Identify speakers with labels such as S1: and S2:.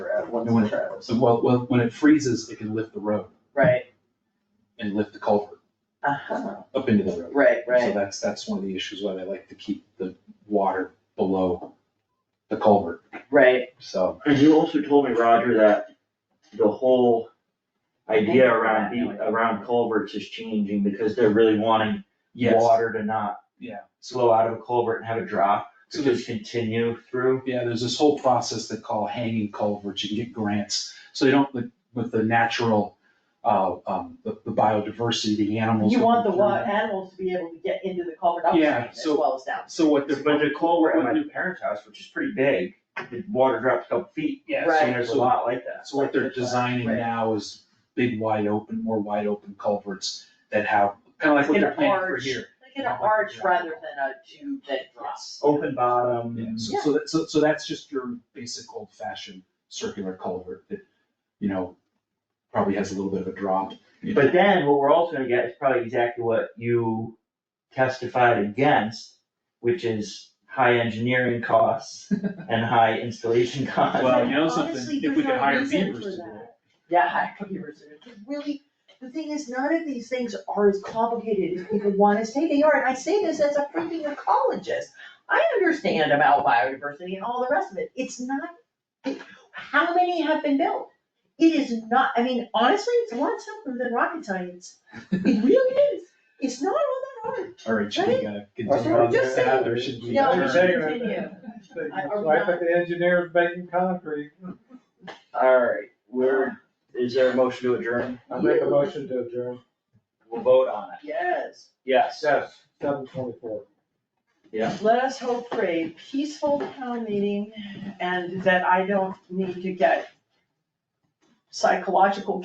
S1: one
S2: No,
S1: to
S2: it-
S1: Travis,
S2: So well, well, when it freezes, it can lift the road
S1: right,
S2: and lift the culvert
S1: uh-huh,
S2: up into the road.
S1: right,
S2: So
S1: right,
S2: that's, that's one of the issues why they like to keep the water below the culvert,
S1: right,
S2: so.
S3: And you also told me, Roger, that the whole idea around, the- around culverts is changing because they're really wanting
S2: Yes.
S3: water to not
S2: Yeah.
S3: flow out of a culvert and have a drop,
S2: So
S3: to
S2: there's,
S3: just continue through.
S2: yeah, there's this whole process they call hanging culverts, you can get grants, so they don't, with- with the natural, uh, um, the the biodiversity, the animals.
S1: you want the
S2: that come
S1: wa-
S2: through.
S1: animals to be able to get into the culvert
S2: Yeah,
S1: upstream as
S2: so-
S1: well as down.
S2: So what they're.
S3: But the culvert at
S2: what
S3: my
S2: they're-
S3: parents' house, which is pretty big, the water drops a couple feet,
S2: Yeah,
S1: Right.
S2: so
S3: and there's a lot like that.
S2: So what they're designing
S1: Right.
S2: now is big wide open, more wide open culverts that have, kind of like what
S1: In
S2: they're
S1: an
S2: planning for
S1: arch.
S2: here.
S1: Like an arch rather than a tube that drops.
S3: Open bottom.
S2: Yeah, so,
S1: Yeah.
S2: so that, so, so that's just your basic old fashioned circular culvert that, you know, probably has a little bit of a drop. you know.
S3: But then what we're also gonna get is probably exactly what you testified against, which is high engineering costs and high installation costs.
S2: Well, you know
S4: Honestly,
S2: something, if
S4: there's
S2: we could
S4: no
S2: hire
S4: reason
S2: beavers
S4: for
S2: to do
S4: that.
S2: it.
S1: Yeah, I could be reserved. It's Really, the thing is, none of these things are as complicated as people wanna say they are, and I say this as a freaking ecologist. I understand about biodiversity and all the rest of it, it's not, how many have been built? It is not, I mean, honestly, it's a lot simpler than rocket science, it really is, it's not all that hard.
S2: All right, should we uh, continue
S1: So
S2: on
S1: we're just
S2: to
S1: saying,
S2: Heather? Should we
S1: no,
S2: adjourn?
S1: we should continue. I- are we
S5: So I think the engineer is making concrete.
S3: Alright, where, is there a motion to adjourn?
S5: I make a motion to adjourn.
S3: We'll vote on it.
S1: Yes,
S3: Yes.
S5: Yes, seven twenty-four.
S1: let us hope for a peaceful town meeting and that I don't need to get psychological